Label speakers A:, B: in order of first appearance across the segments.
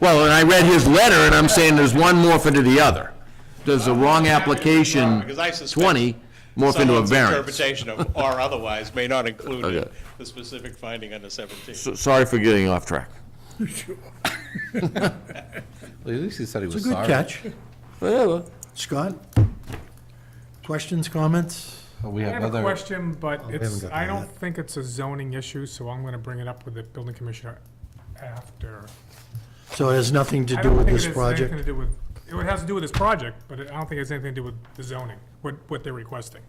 A: Well, and I read his letter, and I'm saying there's one morph into the other. Does the wrong application,
B: Because I suspect
A: twenty, morph into a
B: Someone's
A: variance?
B: interpretation of or otherwise may not include
A: Okay.
B: the specific finding under 17.
A: So- Sorry for getting off track.
C: Well, At least he said he was
D: It's a good
C: sorry.
D: catch.
A: Whatever.
D: Scott? Questions, comments?
C: But We
E: I
C: have
E: have a
C: another,
E: question, but
D: Oh, haven't
E: it's,
D: got
E: I
D: that
E: don't think it's a zoning issue, so I'm gonna bring it up with the building commissioner after.
D: So it has nothing to
E: I
D: do
E: don't
D: with
E: think it
D: this
E: has anything to
D: project?
E: do with, it would- has to do with this project, but it- I don't think it has anything to do with the zoning, what, what they're requesting.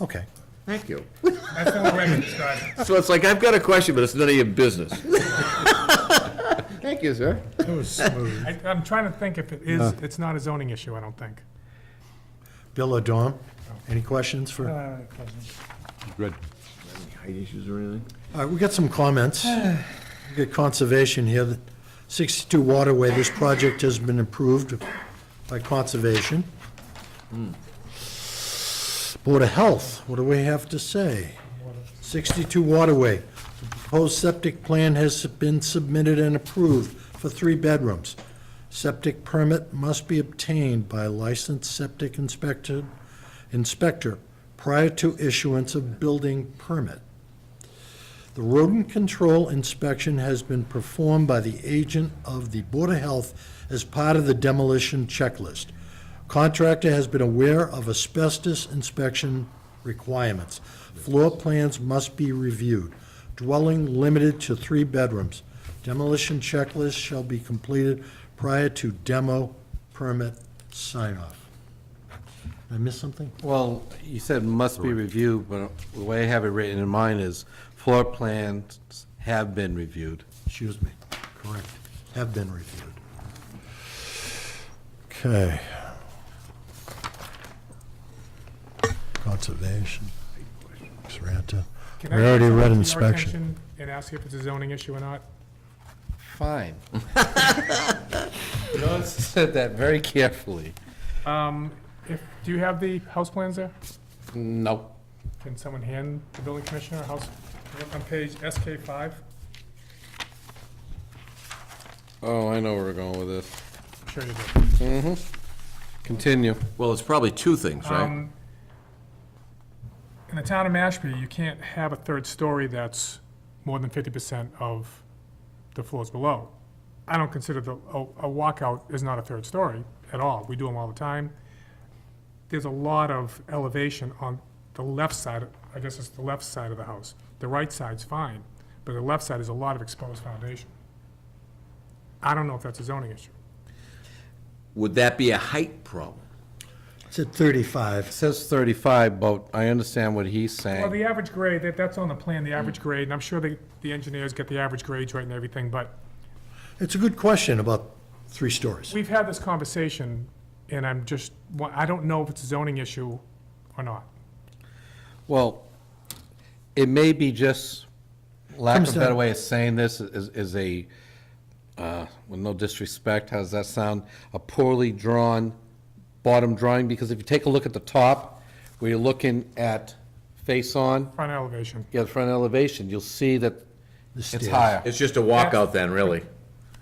D: Okay.
A: Thank you.
E: That's the only way I can describe it.
A: So it's like, I've got a question, but it's none of your business. Thank you, sir.
E: I- I'm trying to think if it is, it's not a zoning issue, I don't think.
D: Bill or Dom, any questions
E: Uh,
D: for, all
C: good.
A: Height issues or anything?
D: right, we got some comments. We got conservation here, The 62 Waterway, this project has been approved by conservation. Board of Health, what do we have to say? 62 Waterway, the proposed septic plan has been submitted and approved for three bedrooms. Septic permit must be obtained by licensed septic inspector, inspector prior to issuance of building permit. The rodent control inspection has been performed by the agent of the Board of Health as part of the demolition checklist. Contractor has been aware of asbestos inspection requirements. Floor plans must be reviewed. Dwelling limited to three bedrooms. Demolition checklist shall be completed prior to demo permit sign-off. Did I miss something?
C: Well, you said must be reviewed, but the way I have it written in mine is floor plans have been reviewed.
D: Excuse me, correct, have been reviewed. Okay. Conservation, Saranta.
E: Can I
D: We already
E: bring it
D: read
E: to your
D: inspection.
E: attention And ask you if it's a zoning issue or not?
C: Fine. Notice I said that very carefully.
E: Um, if, do you have the house plans there?
C: No.
E: Can someone hand the building commissioner a house, look on page SK five?
C: Oh, I know where we're going with this.
E: Sure you do.
C: Continue.
A: Well, it's probably two things, right?
E: Um, In the town of Mashpee, you can't have a third story that's more than fifty percent of the floors below. I don't consider the, a, a walkout is not a third story at all. We do them all the time. There's a lot of elevation on the left side, I guess it's the left side of the house. The right side's fine, but the left side is a lot of exposed foundation. I don't know if that's a zoning issue.
A: Would that be a height problem?
D: It's at 35.
C: It says 35, but I understand what he's
E: Well,
C: saying.
E: the average grade, that, that's on the plan, the average grade, and I'm sure the, the engineers get the average grades right and everything, but
D: It's a good question about three stories.
E: we've had this conversation, and I'm just, wa- I don't know if it's a zoning issue or not.
C: Well, it may be just, lack
D: Comes
C: of a better
D: down-
C: way of saying this is, is a, uh, with no disrespect, how does that sound? A poorly drawn bottom drawing, because if you take a look at the top, where you're looking at face-on,
E: Front elevation.
C: you have front elevation, you'll see that it's
D: stairs.
C: higher.
A: It's just a walkout then, really.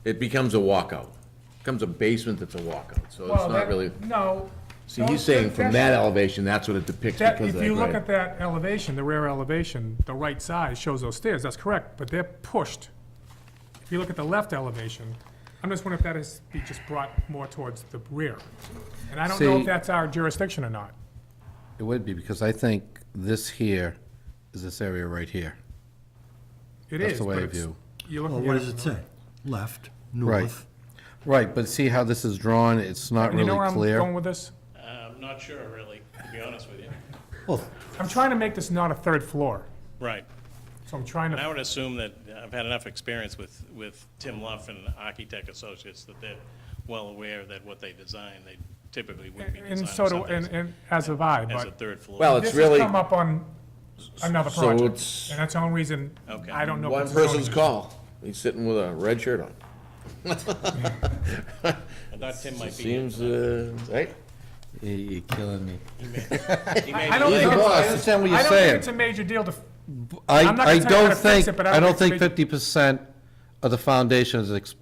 A: It becomes a walkout. Becomes a basement that's a walkout, so it's not really.
E: No.
A: See, he's saying from that elevation, that's what it depicts
E: That,
A: because of
E: if
A: that
E: you look
A: grade.
E: at that elevation, the rear elevation, the right side shows those stairs, that's correct, but they're pushed. If you look at the left elevation, I'm just wondering if that is, be just brought more towards the rear. And I don't know
C: See-
E: if that's our jurisdiction or not.
C: It would be, because I think this here is this area right here.
E: It
C: That's
E: is,
C: the way
E: but
C: I
E: it's-
C: view.
E: You're
D: Well,
E: looking
D: Oh, what
E: at it
D: does it
E: from the-
D: say? Left,
C: Right.
D: north.
C: Right, but see how this is drawn, it's not
E: You know where
C: really
E: I'm
C: clear.
E: going with this?
B: Uh, I'm not sure, really, to be honest with you.
D: Well,
E: I'm trying to make this not a third floor,
B: Right.
E: so I'm trying
B: And I
E: to,
B: would assume that, I've had enough experience with, with Tim Luff and Architect Associates, that they're well aware that what they design, they typically wouldn't be
E: and
B: designing
E: so do, and,
B: something
E: and as have I,
B: as a
E: but
B: third floor.
A: Well, it's
E: this
A: really
E: has come up on another
A: so
E: project,
A: it's-
E: and that's the only reason
B: Okay.
E: I don't know. if
A: one
E: it's a zoning
A: person's
E: issue.
A: call. He's sitting with a red shirt on.
B: I thought Tim might be. here.
A: Seems, uh, right?
C: You- You're killing me.
B: He may
E: I
B: be-
E: don't
A: He's
E: think,
A: the
E: it's-
A: boss.
C: I understand what
E: I
C: you're
E: don't think
C: saying.
E: it's a major deal to,
C: I,
E: I'm not gonna
C: I
E: tell you how
C: don't
E: to fix
C: think,
E: it, but I
C: I
E: don't
C: don't
E: think
C: think
E: it's
C: fifty percent of the foundation is exposed